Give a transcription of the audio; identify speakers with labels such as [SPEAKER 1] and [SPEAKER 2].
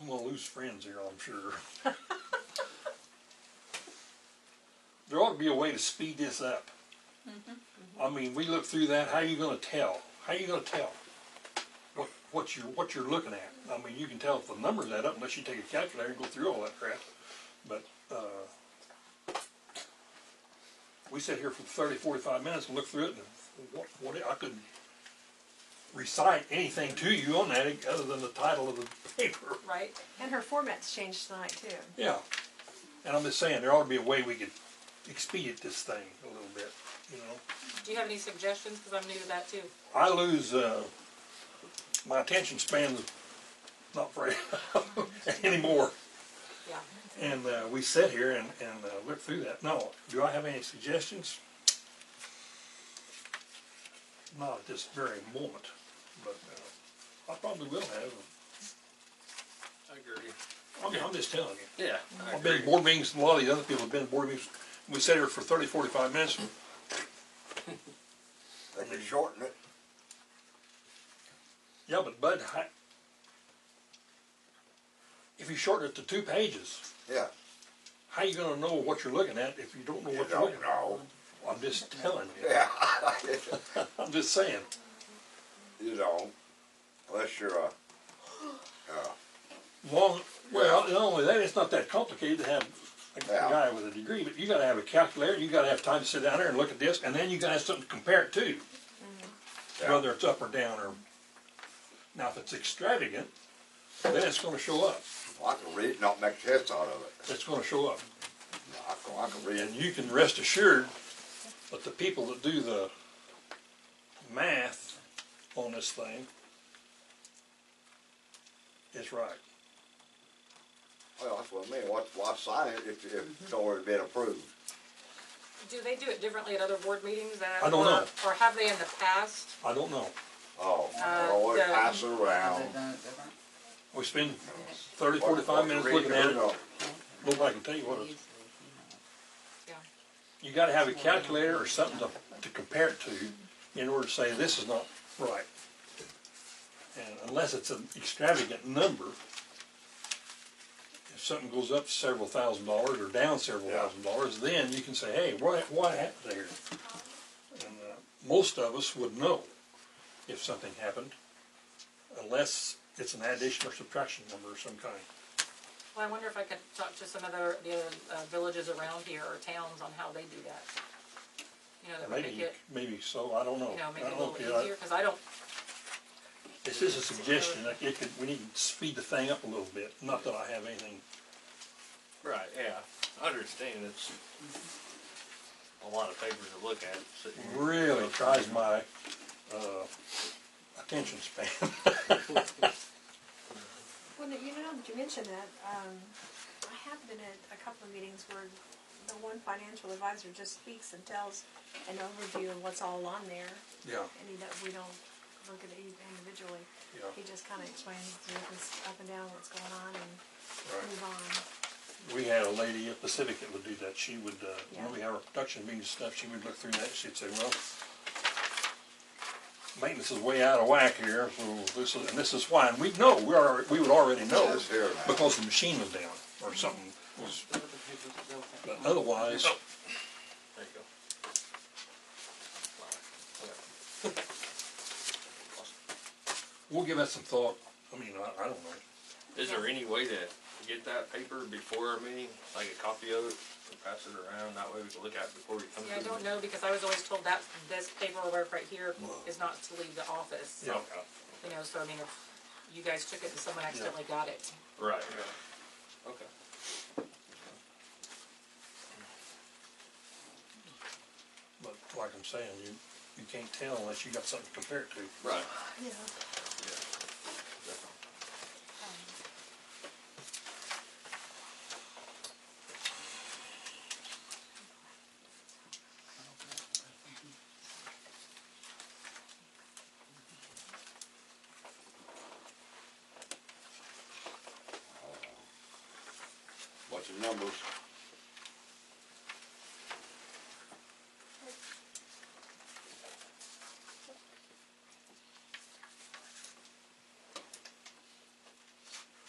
[SPEAKER 1] I'm gonna lose friends here, I'm sure. there ought to be a way to speed this up. I mean, we look through that. How you gonna tell? How you gonna tell what, what you're what you're looking at? I mean, you can tell if the numbers add up unless you take a calculator and go through all that crap. But uh, we sat here for 30, 45 minutes and looked through it, and what, what I could recite anything to you on that other than the title of the paper.
[SPEAKER 2] right?
[SPEAKER 3] And her format's changed tonight too.
[SPEAKER 1] Yeah, and I'm just saying there ought to be a way we could expedite this thing a little bit. You know.
[SPEAKER 2] Do you have any suggestions, because I'm new to that too?
[SPEAKER 1] I lose, uh, my attention span's not very anymore.
[SPEAKER 2] Yeah.
[SPEAKER 1] And, uh, we sit here and, and, uh, look through that. No, do I have any suggestions? Not at this very moment, but, uh, I probably will have.
[SPEAKER 4] I agree.
[SPEAKER 1] I mean, I'm just telling you.
[SPEAKER 4] Yeah, I
[SPEAKER 1] I've been
[SPEAKER 4] agree.
[SPEAKER 1] to board meetings, a lot of the other people have been to board meetings. We sat here for thirty, forty-five minutes.
[SPEAKER 5] They could shorten it.
[SPEAKER 1] Yeah, but Bud, I- if you shorten it to two pages,
[SPEAKER 5] Yeah.
[SPEAKER 1] How you gonna know what you're looking at if you don't know
[SPEAKER 5] You
[SPEAKER 1] what you're looking
[SPEAKER 5] don't
[SPEAKER 1] at?
[SPEAKER 5] know.
[SPEAKER 1] I'm just telling you.
[SPEAKER 5] Yeah.
[SPEAKER 1] I'm just saying.
[SPEAKER 5] you don't. Unless you're a. Uh,
[SPEAKER 1] Long, well, not only that, it's not that complicated to have a
[SPEAKER 5] Yeah.
[SPEAKER 1] guy with a degree, but you gotta have a calculator, you gotta have time to sit down there and look at this, and then you gotta have something to compare it to.
[SPEAKER 5] Yeah.
[SPEAKER 1] Whether it's up or down or, now if it's extravagant, then it's gonna show up.
[SPEAKER 5] I can read it, not make sense out of it.
[SPEAKER 1] It's gonna show up.
[SPEAKER 5] I can, I can read
[SPEAKER 1] And
[SPEAKER 5] it.
[SPEAKER 1] you can rest assured that the people that do the math on this thing is right.
[SPEAKER 5] Well, that's what I mean. Why, why sign it if, if it's already been approved?
[SPEAKER 2] Do they do it differently at other board meetings than?
[SPEAKER 1] I don't know.
[SPEAKER 2] Or or have they in the past?
[SPEAKER 1] I don't know.
[SPEAKER 5] Oh,
[SPEAKER 2] Uh,
[SPEAKER 5] always
[SPEAKER 2] the-
[SPEAKER 5] pass it around.
[SPEAKER 1] We spend thirty, forty-five minutes looking at it. Nobody can tell you what it is.
[SPEAKER 2] Yeah.
[SPEAKER 1] You gotta have a calculator or something to, to compare it to in order to say this is not right. And unless it's an extravagant number, if something goes up several thousand dollars or down several
[SPEAKER 5] Yeah.
[SPEAKER 1] thousand dollars, then you can say, hey, what, what happened there? And, uh, most of us would know if something happened, unless it's an addition or subtraction number of some kind.
[SPEAKER 2] Well, I wonder if I could talk to some other, the other uh, villages around here or towns on how they do that. You know, that would make
[SPEAKER 1] Maybe,
[SPEAKER 2] it,
[SPEAKER 1] maybe so, I don't know.
[SPEAKER 2] you know, make
[SPEAKER 1] I
[SPEAKER 2] it a
[SPEAKER 1] don't know
[SPEAKER 2] little
[SPEAKER 1] if you- I-
[SPEAKER 2] easier, because I don't,
[SPEAKER 1] It's just a suggestion, like, it could, we need to speed the thing up a little bit, not that I have anything,
[SPEAKER 4] Right, yeah, I understand it's a lot of papers to look at, sitting here.
[SPEAKER 1] really tries my, uh, attention span.
[SPEAKER 3] Well, you know, you mentioned that, um, I have been at a couple of meetings where the one financial advisor just speaks and tells an overview of what's all on there,
[SPEAKER 1] Yeah,
[SPEAKER 3] and he, don't- we don't look at it individually.
[SPEAKER 1] Yeah.
[SPEAKER 3] He just kinda explains the difference up and down, what's going on, and
[SPEAKER 1] right.
[SPEAKER 3] move on.
[SPEAKER 1] We had a lady at Pacific that would do that, she would, uh, when we
[SPEAKER 3] Yeah.
[SPEAKER 1] had our production meeting and stuff, she would look through that, she'd say, well, maintenance is way out of whack here, so this is, and this is why, and we'd know, we are, we would already know,
[SPEAKER 5] It's here now.
[SPEAKER 1] because the machine was down, or something was, but otherwise,
[SPEAKER 4] There you go.
[SPEAKER 1] we'll give that some thought, I mean, I, I don't know.
[SPEAKER 4] Is there any way to get that paper before our meeting, like a copy of it, and pass it around, that way we can look at it before we come to
[SPEAKER 2] yeah, I
[SPEAKER 4] the
[SPEAKER 2] don't
[SPEAKER 4] meeting?
[SPEAKER 2] know, because I was always told that this paperwork right here is not to leave the office.
[SPEAKER 1] Yeah.
[SPEAKER 2] You know, so I mean, if you guys took it and someone accidentally got it,
[SPEAKER 4] Right, yeah, okay.
[SPEAKER 1] But like I'm saying, you, you can't tell unless you got something to compare it to.
[SPEAKER 4] Right,
[SPEAKER 3] Yeah.
[SPEAKER 4] yeah. Definitely.
[SPEAKER 3] Um,
[SPEAKER 5] Bunch of numbers.